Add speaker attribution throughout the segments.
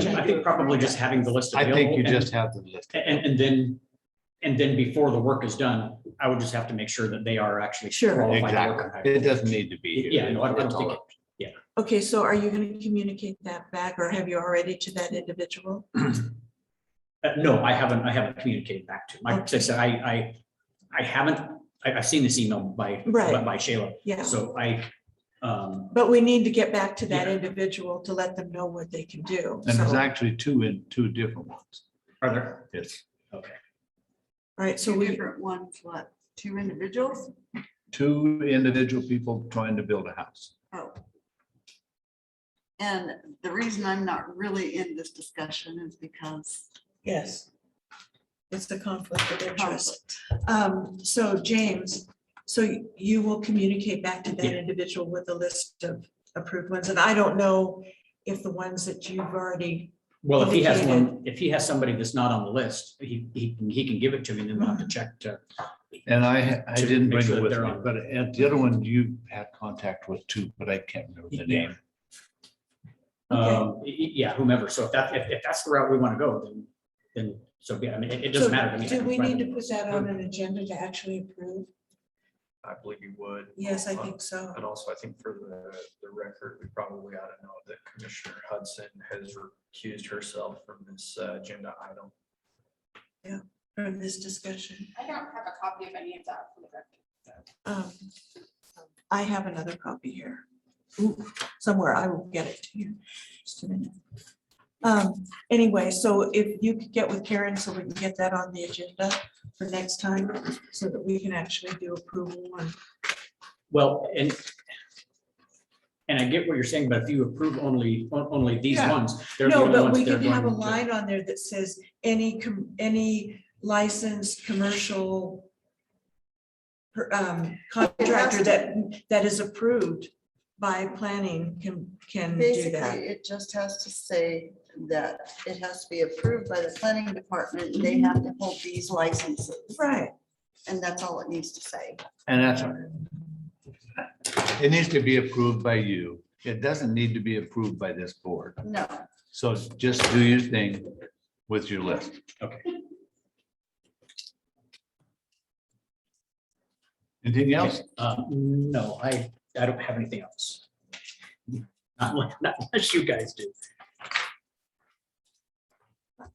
Speaker 1: I think probably just having the list
Speaker 2: I
Speaker 1: available.
Speaker 2: think you
Speaker 1: and-
Speaker 2: just have to list. it.
Speaker 1: And, and then, and then before the work is done, I would just have to make sure that they are actually
Speaker 3: Sure.
Speaker 1: qualified. to work on
Speaker 2: Exactly. It
Speaker 1: highway.
Speaker 2: doesn't need to be. here.
Speaker 1: Yeah, no, I don't
Speaker 2: That's all
Speaker 1: think-
Speaker 2: it-
Speaker 3: Okay, so are you going to communicate that back or have you already to that individual?
Speaker 1: Uh, No, I haven't, I haven't communicated back to, like I said, I, I, I haven't, I, I've seen this email by,
Speaker 3: Right.
Speaker 1: by Shayla.
Speaker 3: Yeah,
Speaker 1: So I, um,
Speaker 3: but we need to get back to that
Speaker 1: Yeah.
Speaker 3: individual to let them know what they can do.
Speaker 2: And there's
Speaker 3: So-
Speaker 2: actually two in, two different ones.
Speaker 1: are there,
Speaker 2: It's
Speaker 1: okay.
Speaker 3: All right, so
Speaker 4: Two
Speaker 3: we,
Speaker 4: different ones, what, two individuals?
Speaker 2: two individual people trying to build a house.
Speaker 4: Oh. And the reason I'm not really in this discussion is because
Speaker 3: yes. It's the conflict of interest.
Speaker 4: conflict.
Speaker 3: Um, so James, so you will communicate back to that
Speaker 1: Yeah.
Speaker 3: individual with a list of approved ones, and I don't know if the ones that you've already,
Speaker 1: Well, if he has one, if he has somebody that's not on the list, he, he, can- he can give it to me and then we'll have to check to.
Speaker 2: And I, I
Speaker 1: To make
Speaker 2: didn't bring
Speaker 1: sure
Speaker 2: it
Speaker 1: that
Speaker 2: with
Speaker 1: they're
Speaker 2: me,
Speaker 1: on.
Speaker 2: but at the other one you had contact with too, but I can't remember the
Speaker 1: Yeah.
Speaker 2: name.
Speaker 3: Okay.
Speaker 1: Um, y- y- yeah, whomever. So if that, if, if that's the route we want to go, then, then, so, yeah, I mean, it, it
Speaker 3: So
Speaker 1: doesn't matter to me. I
Speaker 3: do
Speaker 1: can
Speaker 3: we
Speaker 1: find
Speaker 3: need
Speaker 1: them.
Speaker 3: to put that on an agenda to actually approve?
Speaker 5: I believe you would.
Speaker 3: Yes, I
Speaker 5: Um,
Speaker 3: think so.
Speaker 5: And also, I think for the, the record, we probably ought to know that Commissioner Hudson has recused herself from this uh, agenda item.
Speaker 3: From this discussion.
Speaker 6: I don't have a copy of any of that for the record.
Speaker 3: Um, I have another copy here. Ooh, Somewhere I will get it to you. Just a minute. Um, anyway, so if you could get with Karen so we can get that on the agenda for next time, so that we can actually do approval one.
Speaker 1: Well, and, and I get what you're saying, but if you approve only, on- only these
Speaker 2: Yeah.
Speaker 1: ones, they're the
Speaker 3: No,
Speaker 1: only
Speaker 3: but
Speaker 1: ones
Speaker 3: we
Speaker 1: that are
Speaker 3: could have a
Speaker 1: going to.
Speaker 3: line on there that says any, com- any licensed commercial per- um, contractor that, that is approved by planning can, can do that.
Speaker 4: Basically, it just has to say that it has to be approved by the planning department. and They have to hold these licenses
Speaker 3: Right,
Speaker 4: and that's all it needs to say.
Speaker 2: And that's, it needs to be approved by you. It doesn't need to be approved by this board.
Speaker 4: No,
Speaker 2: So just do your thing with your list.
Speaker 1: Okay.
Speaker 2: Anything else?
Speaker 1: Uh, No, I, I don't have anything else. Not like- not Unless you guys do.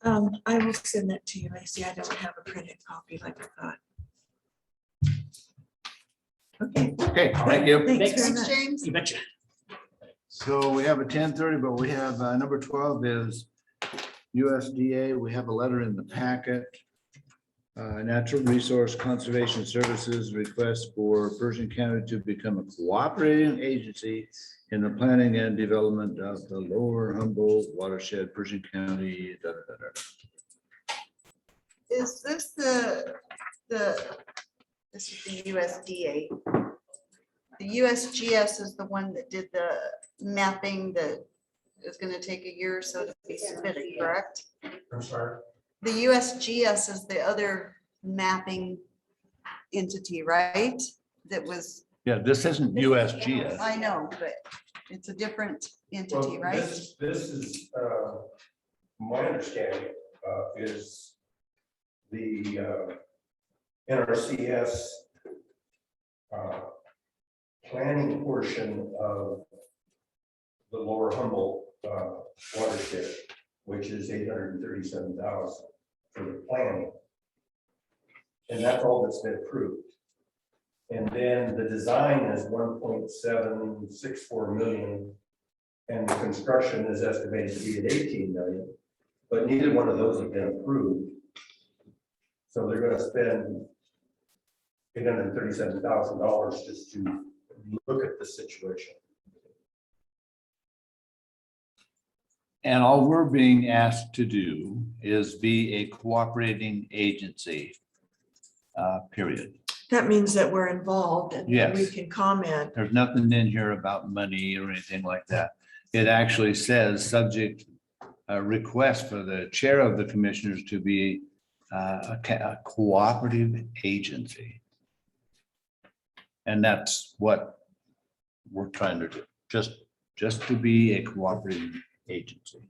Speaker 3: um, I will send that to you. I see I don't have a printed copy like I thought. Okay,
Speaker 2: Okay, thank you.
Speaker 3: thanks very
Speaker 1: Thanks,
Speaker 3: much.
Speaker 4: James?
Speaker 1: You betcha.
Speaker 2: So we have a ten thirty, but we have, uh, number twelve is USDA. We have a letter in the packet. Uh, Natural Resource Conservation Services request for Persian County to become a cooperating agency in the planning and development of the lower Humboldt watershed, Persian County. da, da, da, da.
Speaker 4: Is this the, the, this is the USDA? The USGS is the one that did the mapping that is gonna take a year or so to be submitted, correct?
Speaker 5: I'm sorry.
Speaker 4: The USGS is the other mapping entity, right? That was,
Speaker 2: Yeah, this isn't USGS.
Speaker 4: I know, but it's a different entity, right?
Speaker 7: This this is, uh, my understanding uh, is the uh, NRCS uh, planning portion of the lower Humboldt uh, watershed, which is eight hundred and thirty-seven thousand for the planning. And that's all that's been approved. And then the design is one point seven six four million. And the construction is estimated to be at eighteen million, but neither one of those have been approved. So they're gonna spend eight hundred and thirty-seven thousand dollars just to look at the situation.
Speaker 2: And all we're being asked to do is be a cooperating agency. Uh, period.
Speaker 3: That means that we're involved and that we
Speaker 2: Yes.
Speaker 3: can comment.
Speaker 2: There's nothing in here about money or anything like that. It actually says, subject, uh, request for the chair of the commissioners to be uh, a ca- a cooperative agency. And that's what we're trying to do, just, just to be a cooperative agency.